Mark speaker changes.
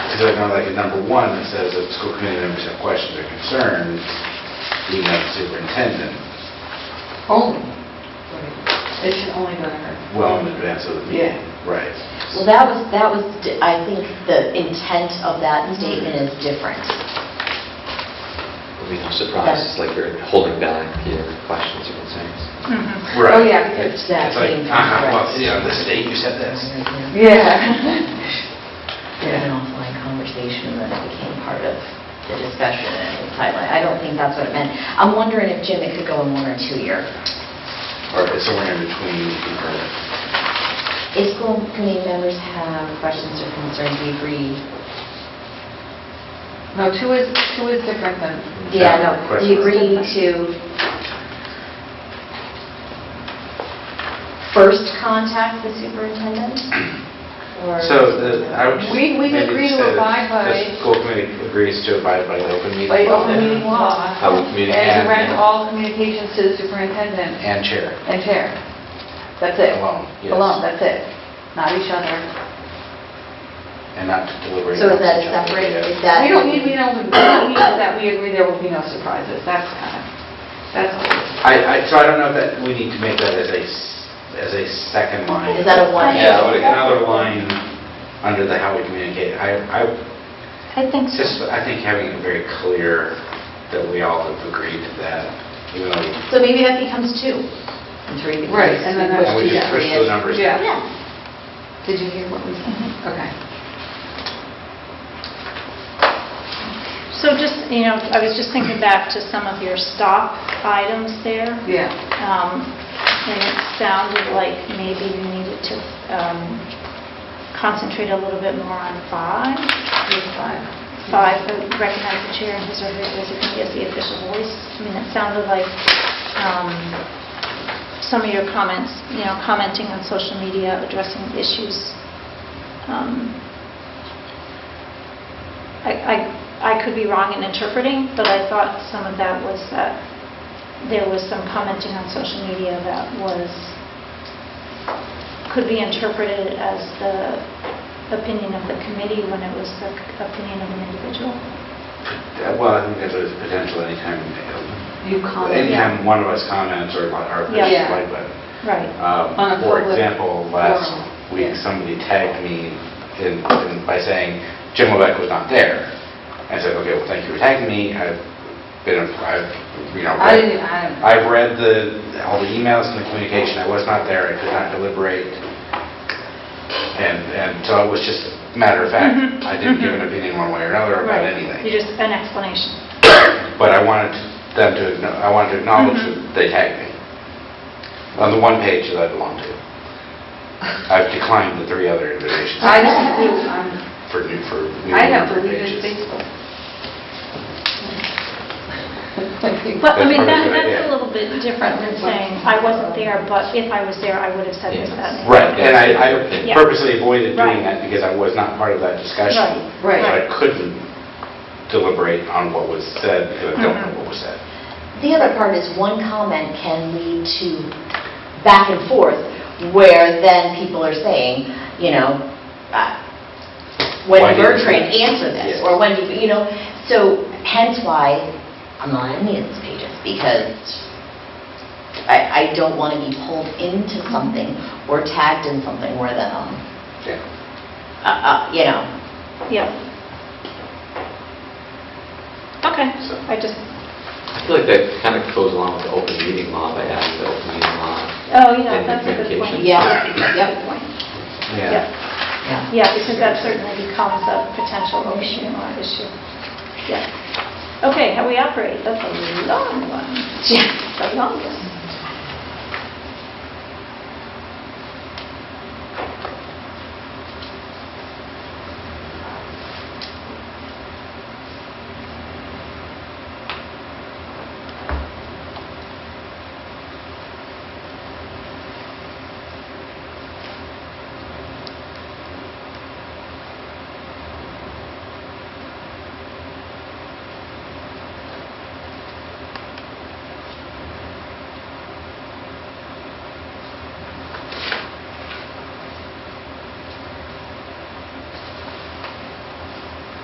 Speaker 1: feel like on like in number one, it says that school committee members have questions or concerns, email the superintendent
Speaker 2: Only. It should only go to her.
Speaker 1: well in advance of the meeting. Right.
Speaker 3: Well, that was, that was, di- I think the intent of that statement is different.
Speaker 4: There'll be no surprises, like you're holding back your questions or concerns.
Speaker 1: Right.
Speaker 2: Oh, yeah, because
Speaker 1: It's
Speaker 3: that
Speaker 1: it's like,
Speaker 3: came from
Speaker 1: uh-huh, well,
Speaker 3: Rex.
Speaker 1: yeah, on this date you said this.
Speaker 2: Yeah.
Speaker 3: It was an offline conversation and then it became part of the discussion and it was sidelined. I don't think that's what it meant. I'm wondering if, Jim, it could go in one or two year.
Speaker 1: Or it's somewhere in between, or,
Speaker 3: If school committee members have questions or concerns, we agree.
Speaker 2: No, two is, two is different than,
Speaker 3: Yeah, no,
Speaker 1: Questions.
Speaker 3: we agree to first contact the superintendent? or-
Speaker 1: so the, I would just.
Speaker 2: We- we
Speaker 1: maybe
Speaker 2: agree
Speaker 1: just
Speaker 2: to
Speaker 1: say that
Speaker 2: abide by-
Speaker 1: The school committee agrees to abide by the open meeting.
Speaker 2: by
Speaker 1: law
Speaker 2: open meeting law.
Speaker 4: How we communicate.
Speaker 2: And direct all communications to the superintendent
Speaker 1: And chair.
Speaker 2: and chair. That's it.
Speaker 1: Alone, yes.
Speaker 2: Alone, that's it. Not each other.
Speaker 1: And not to deliberate.
Speaker 3: So is
Speaker 1: amongst each other,
Speaker 3: that separate?
Speaker 1: yeah.
Speaker 3: Is that?
Speaker 2: We don't need, we don't, we need that we agree there will be no surprises. That's kind of, that's all. it is.
Speaker 1: I, I, so I don't know that we need to make that as a, s- as a second line.
Speaker 3: Is that a one?
Speaker 1: Yeah, like another line under the how we communicate. I, I
Speaker 5: I think so.
Speaker 1: just, I think having it very clear that we all have agreed to that, you know,
Speaker 3: So maybe that becomes two. And three becomes.
Speaker 2: Right, and then
Speaker 3: we
Speaker 2: that's-
Speaker 1: and we
Speaker 3: push
Speaker 1: just
Speaker 3: two
Speaker 1: push
Speaker 3: down.
Speaker 1: the numbers.
Speaker 2: Yeah.
Speaker 3: Yeah.
Speaker 2: Did you hear what we said? Okay.
Speaker 5: So just, you know, I was just thinking back to some of your stop items there.
Speaker 2: Yeah.
Speaker 5: Um, And it sounded like maybe you needed to um, concentrate a little bit more on five.
Speaker 2: Here's five.
Speaker 5: Five, uh, recognize the chair and his or her designee as the official voice. I mean, it sounded like um, some of your comments, you know, commenting on social media, addressing issues. Um, I I I could be wrong in interpreting, but I thought some of that was that there was some commenting on social media that was, could be interpreted as the opinion of the committee when it was the c- opinion of an individual.
Speaker 1: Uh, Well, I think there's always potential anytime, uh,
Speaker 2: You comment
Speaker 1: anytime one of us comments or li- or
Speaker 5: Yeah.
Speaker 1: pushes like button.
Speaker 5: Right.
Speaker 1: Um,
Speaker 2: On a
Speaker 1: For
Speaker 2: public
Speaker 1: example, last
Speaker 2: forum,
Speaker 1: week,
Speaker 2: yeah.
Speaker 1: somebody tagged me in- in- by saying Jim Lebeck was not there. I said, okay, well, thank you for tagging me. I've been, I've, you know,
Speaker 2: I
Speaker 1: read-
Speaker 2: didn't, I,
Speaker 1: I've read the, all the emails and the communication. I was not there. I could not deliberate. And, and so it was just matter of fact.
Speaker 2: Mm-hmm.
Speaker 5: Mhm,
Speaker 1: I didn't give
Speaker 5: mhm.
Speaker 1: an opinion one way or another about
Speaker 5: Right.
Speaker 1: anything.
Speaker 5: You just, an explanation.
Speaker 1: But I wanted them to, acknow- I wanted to acknowledge that
Speaker 5: Mhm.
Speaker 1: they tagged me on the one page that I belong to. I've declined the three other invitations
Speaker 2: I don't do, I'm,
Speaker 1: for new, for new
Speaker 2: I have
Speaker 1: member
Speaker 2: deleted
Speaker 1: pages.
Speaker 2: Facebook.
Speaker 5: But, I mean, that,
Speaker 1: That's probably a good
Speaker 5: that's a
Speaker 1: idea.
Speaker 5: little bit different than saying, I wasn't there, but if I was there, I would have said this,
Speaker 4: Yeah.
Speaker 5: that, and the
Speaker 1: Right, and I I
Speaker 5: Yeah.
Speaker 1: purposely avoided doing
Speaker 5: Right.
Speaker 1: that because I was not part of that discussion.
Speaker 5: Right.
Speaker 1: So
Speaker 2: Right.
Speaker 1: I couldn't deliberate on what was said because I don't know
Speaker 5: Mhm.
Speaker 1: what was said.
Speaker 3: The other part is one comment can lead to back and forth where then people are saying, you know, uh, when
Speaker 1: Why
Speaker 3: did
Speaker 1: didn't you-
Speaker 3: Bertrand answer this?
Speaker 1: Yes.
Speaker 3: Or when did, you know, so hence why I'm not on any of these pages because I, I don't want to be pulled into something or tagged in something where then, um,
Speaker 1: Yeah.
Speaker 3: uh, uh, you know,
Speaker 5: Yeah. Okay,
Speaker 1: So-
Speaker 5: I just,
Speaker 4: I feel like that kind of goes along with the open meeting law by adding the open meeting law.
Speaker 5: oh, yeah,
Speaker 4: And
Speaker 5: that's a good
Speaker 4: communication.
Speaker 5: point.
Speaker 3: yeah,
Speaker 5: Good
Speaker 3: yep,
Speaker 5: point.
Speaker 1: Yeah.
Speaker 3: yeah.
Speaker 5: Yeah, because that certainly becomes a potential issue or issue. Yeah. Okay, how we operate, that's a long one,
Speaker 3: Yeah.
Speaker 5: the longest.